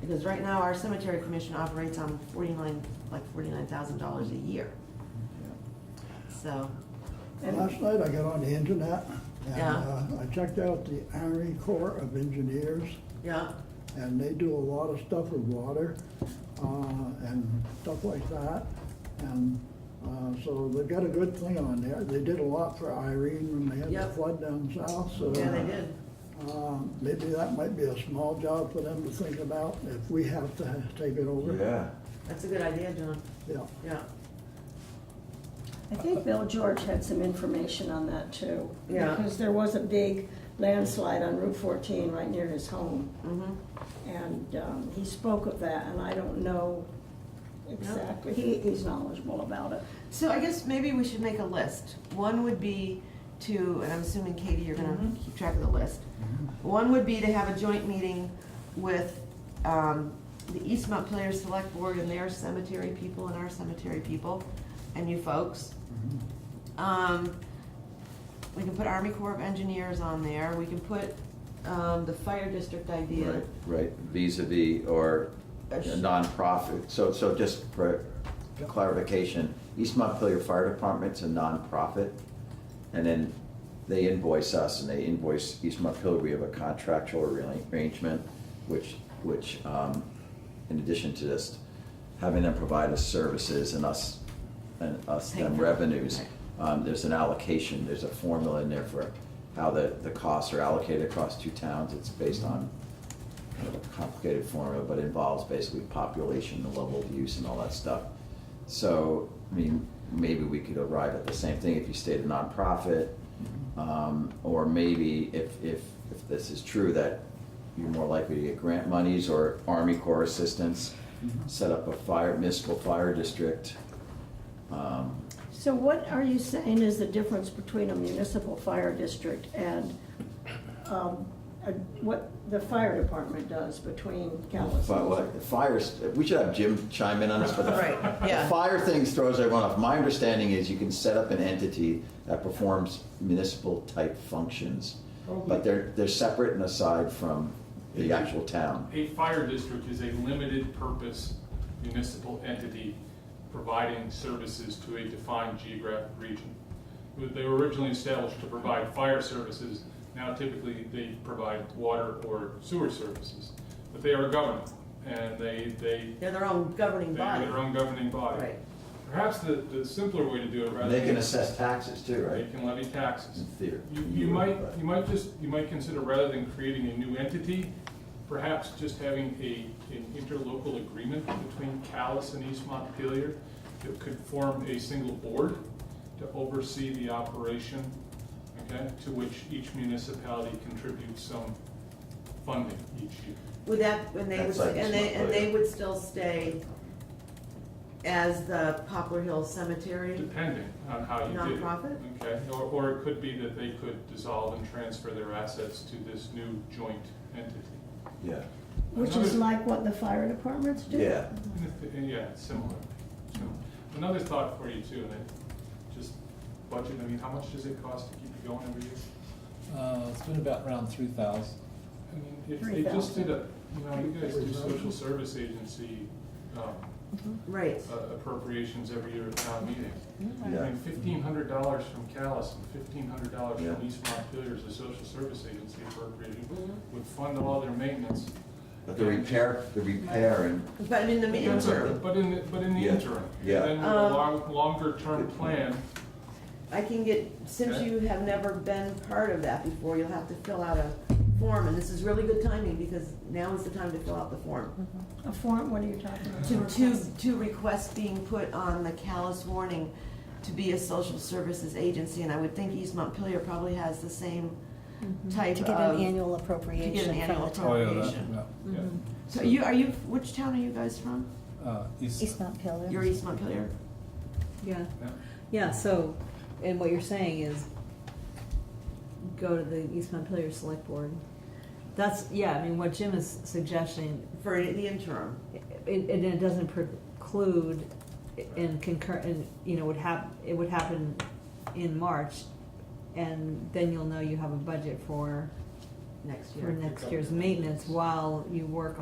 Because right now, our cemetery commission operates on forty-nine, like forty-nine thousand dollars a year. So, Last night I got on the internet and Yeah. uh, I checked out the Army Corps of Engineers yeah, and they do a lot of stuff with water uh, and stuff like that. And uh, so they've got a good thing on there. They did a lot for Irene when they had the Yep. flood down south, so. uh, yeah, they did. Um, Maybe that might be a small job for them to think about if we have to ha- take it over. Yeah, That's a good idea, John, Yeah. yeah. I think Bill George had some information on that too. Yeah. Because there was a big landslide on Route 14 right near his home. Mm-hmm. And um, he spoke of that, and I don't know exactly, he, he's knowledgeable about it. So I guess maybe we should make a list. One would be to, and I'm assuming Katie, you're gonna keep track of the list. One would be to have a joint meeting with um, the East Montpelier Select Board and their cemetery people and our cemetery people and you folks. Mm-hmm. Um, We can put Army Corps of Engineers on there. We can put um, the fire district idea. right, right, vis a vis or a Yes. nonprofit. So, so just for clarification, East Montpelier Fire Department's a nonprofit, and then they invoice us, and they invoice East Montpelier. We have a contractual arra- arrangement, which, which, um, in addition to just having them provide us services and us, and us Paying them for it. revenues, Right. um, there's an allocation, there's a formula in there for how the, the costs are allocated across two towns. It's based on kind of a complicated formula, but involves basically population, the level of use and all that stuff. So, I mean, maybe we could arrive at the same thing if you stayed a nonprofit. Um, or maybe if, if, if this is true, that you're more likely to get grant monies or Army Corps assistance, set up a fire, municipal fire district. Um, So what are you saying is the difference between a municipal fire district and um, a- what the fire department does between Callis? But what, the fires, we should have Jim chime in on this, but the. Right, yeah. The fire thing throws everyone off. My understanding is you can set up an entity that performs municipal type functions. But they're, they're separate and aside from the actual town. A fire district is a limited purpose municipal entity providing services to a defined geographic region. They were originally established to provide fire services, now typically they provide water or sewer services. But they are governed, and they, they, They're their own governing they body. have their own governing body. Right. Perhaps the, the simpler way to do it rather than. They can assess taxes too, They right? can levy taxes. In theory. You, you might, you might just, you might consider, rather than creating a new entity, perhaps just having a, an interlocal agreement between Callis and East Montpelier that could form a single board to oversee the operation, okay, to which each municipality contributes some funding each year. Would that, and they would, That's like and they, and they Montpelier. would still stay as the Poplar Hill Cemetery? Depending on how you do it. Nonprofit? Okay, or, or it could be that they could dissolve and transfer their assets to this new joint entity. Yeah, Which is like what the fire departments do? yeah. And if- Yeah, similar. similar. Another thought for you too, and I just budget, I mean, how much does it cost to keep it going every year? Uh, it's been about around three thousand. I mean, if they just did a, you know, you guys do social service agency um, Right. uh, appropriations every year at town meeting. I Yeah. mean, fifteen hundred dollars from Callis and fifteen hundred dollars Yeah. from East Montpelier as a social service agency appropriating would fund all their maintenance. But the repair, the repair and But in the meantime, But in, the- but in the Yeah. interim. and Yeah. Then with a Um, long, longer term plan, I can get, since Okay. you have never been part of that before, you'll have to fill out a form, and this is really good timing, because now is the time to fill out the form. A form, what are you talking about? To, to, to request being put on the callous warning to be a social services agency, and I would think East Montpelier probably has the same type Mm-hmm. To of. get an annual to get an appropriation from the annual Oh, town. yeah, appropriation. that- yeah. So you, are you, which town are you guys from? yeah. Uh, East- East Mount Pillar. You're East Montpelier? Yeah, Yeah. yeah, so, and what you're saying is go to the East Montpelier Select Board. That's, yeah, I mean, what Jim is suggesting, For the interim. it, it it doesn't preclude and concur, and, you know, would hap, it would happen in March, and then you'll know you have a budget for, next year. for next year's maintenance while you work